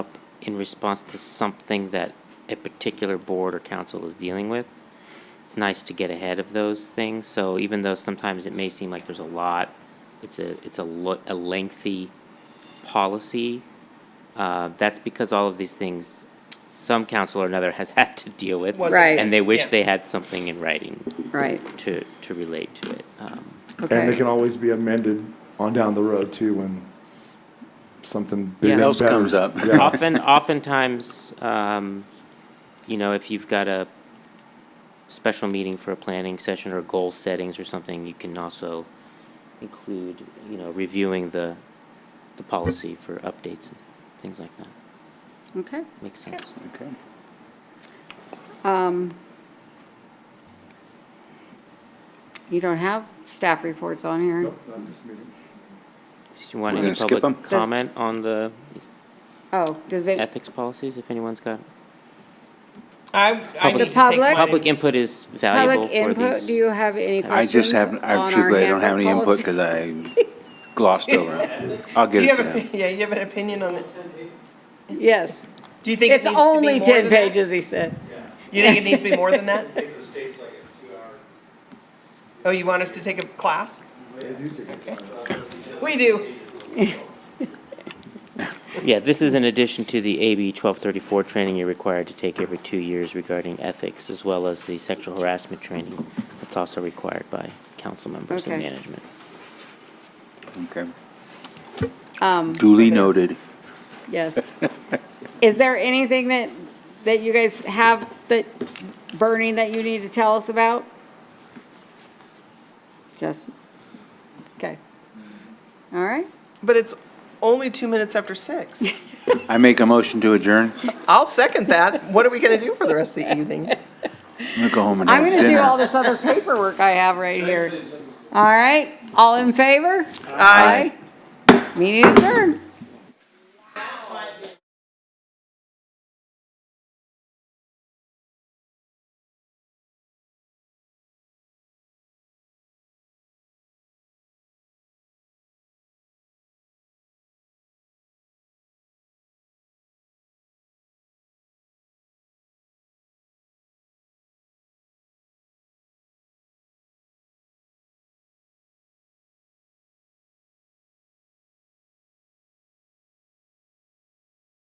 in response to something that a particular board or council is dealing with. It's nice to get ahead of those things, so even though sometimes it may seem like there's a lot, it's a, it's a lo- a lengthy policy. Uh, that's because all of these things, some council or another has had to deal with. Was it? Right. And they wish Yeah. they had something in writing Right, to, to relate to it. Um, okay. And it can always be amended on down the road too when something Yeah. bigger and Else better- comes up. Yeah. Often, oftentimes, um, you know, if you've got a special meeting for a planning session or goal settings or something, you can also include, you know, reviewing the, the policy for updates and things like that. Okay. Makes sense. Okay. Um, You don't have staff reports on here? Nope, not this meeting. Do you want We're any gonna skip 'em? public Does- comment on the Oh, does it, ethics policies, if anyone's got? I, I Public- need to take Public- mine. Public input is valuable public for input, these. do you have any I questions just on haven't, I our truthfully, I don't have any handbook input policy? because I glossed over it. I'll Do give you it to have him. a, yeah, you have an opinion on it? Yes, Do you think it it's needs to be more only than ten that? pages, he said. You think it needs to be more than that? think the state's like a two-hour Oh, you want us to take a class? They do take it. We do. Yeah, this is in addition to the AB 1234 training you're required to take every two years regarding ethics, as well as the sexual harassment training that's also required by council members and Okay. management. Okay. Um, Duly noted. Yes. Is there anything that, that you guys have that's burning that you need to tell us about? Just, okay. All right, But it's only two minutes after six. I make a motion to adjourn. I'll second that. What are we gonna do for the rest of the evening? I'm gonna go home and I'm have gonna do all dinner. this other paperwork I have right here. All right, all in favor? Aye. Meeting adjourned.